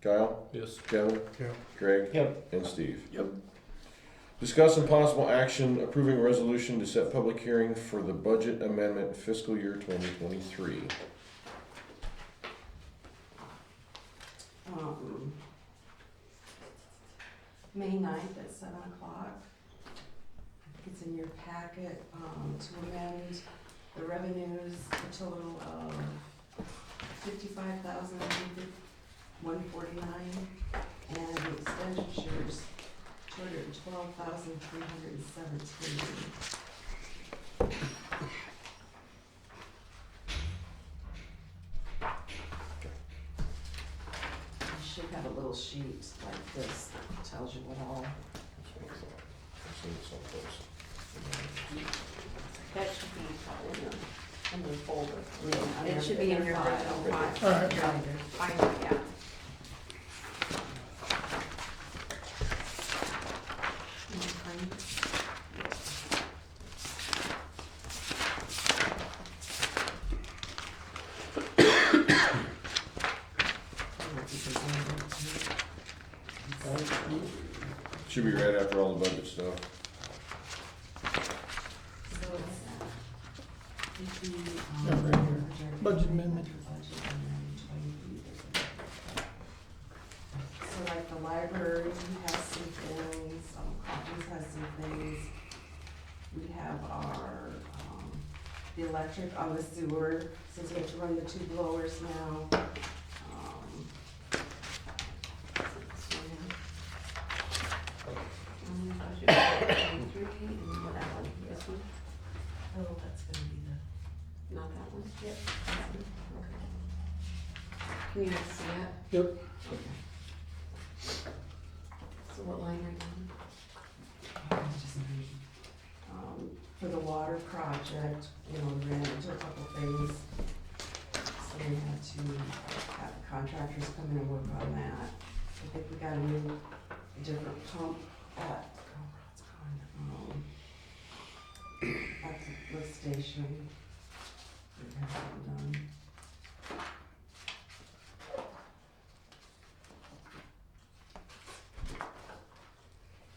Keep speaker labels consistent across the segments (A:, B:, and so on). A: Kyle,
B: Yes.
A: Kevin,
C: Yeah.
A: Greg,
D: Yep.
A: and Steve.
B: Yep.
A: Discuss and possible action approving resolution to set public hearing for the budget amendment fiscal year twenty twenty-three.
E: um, May ninth at seven o'clock. It's in your packet, um, to amend the revenues, a total of fifty-five thousand, one forty-nine, and the expenditures, two hundred and twelve thousand, three hundred and seventeen. You should have a little sheet like this that tells you what all
D: That should be,
E: in your,
D: it should be in
E: in your folder.
D: your original file.
C: Alright.
D: File, yeah.
A: Should be right after all the budget stuff.
C: Yeah, right here. Budget amendment.
E: So like the library has some things, um, copies has some things. We have our, um, the electric on the sewer, since we have to run the two blowers now. Um, so,
D: Mm, budget, um, three, and what, that one, this one,
E: Oh, that's gonna be the,
D: not that one? Yep. Can you see that?
C: Yep.
D: So what line are you
E: oh, it's just me. Um, for the water project, you know, we ran into a couple things. So we had to have contractors come in and work on that. I think we got a new, a different pump at, oh, um, at the lift station. We got that done.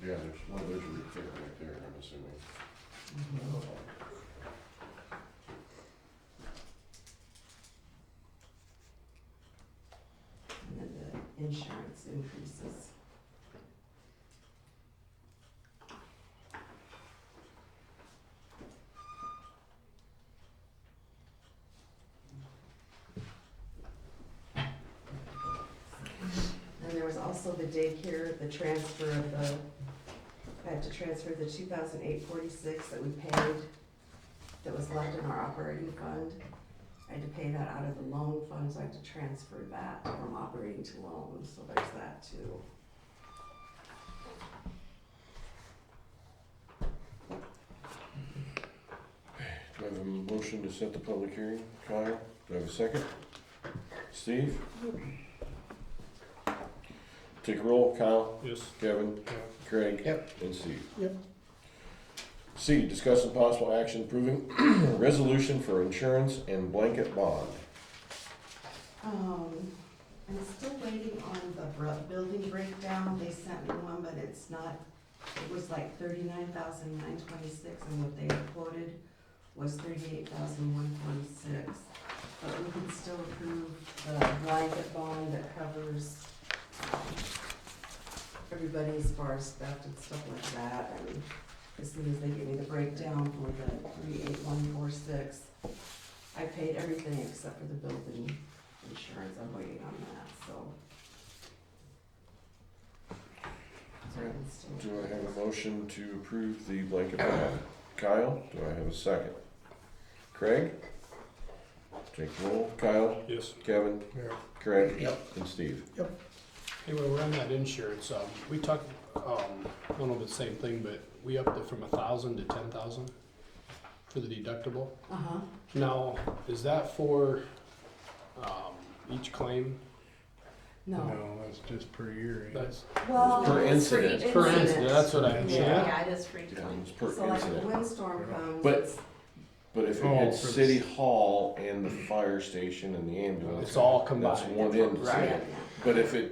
A: Yeah, there's, no, there's a big figure right there, I'm assuming.
E: And then the insurance increases. And there was also the daycare, the transfer of the, I had to transfer the two thousand eight forty-six that we paid, that was left in our operating fund. I had to pay that out of the loan fund, so I had to transfer that from operating to loan, so there's that too.
A: Do I have a motion to set the public hearing? Kyle, do I have a second? Steve? Take a roll, Kyle,
B: Yes.
A: Kevin, Craig.
D: Yep.
A: And Steve.
C: Yep.
A: C, discuss some possible action approving resolution for insurance and blanket bond.
E: Um, I'm still waiting on the bru- building breakdown, they sent me one, but it's not, it was like thirty-nine thousand nine twenty-six, and what they had quoted was thirty-eight thousand one twenty-six. But we can still approve the blanket bond that covers um, everybody as far as theft and stuff like that, and as soon as they give me the breakdown for the three-eight one four-six, I paid everything except for the building insurance, I'm waiting on that, so. So I can still-
A: Do I have a motion to approve the blanket bond? Kyle, do I have a second? Craig? Take a roll, Kyle,
B: Yes.
A: Kevin,
C: Yeah.
A: Craig.
C: Yep.
A: And Steve.
B: Anyway, we're on that insurance. Um, we talked, um, I don't know if it's the same thing, but we upped it from a thousand to ten thousand for the deductible.
E: Uh-huh,
B: Now, is that for, um, each claim?
E: no.
C: No, that's just per year. ain't it?
B: That's
E: Well,
A: Per incident.
D: Oh, It's
B: per
D: Incident.
B: incident, that's what I mean.
E: Yeah.
D: Yeah, it is free to
A: Yeah,
D: claim.
A: it's per
E: So like
A: incident.
E: a windstorm comes.
A: But-
E: it's-
A: But if it
C: Oh,
A: had
C: for the-
A: city hall and the fire station and the ambulance.
B: It's all combined.
A: That's one end.
B: Right.
E: yeah.
A: But if it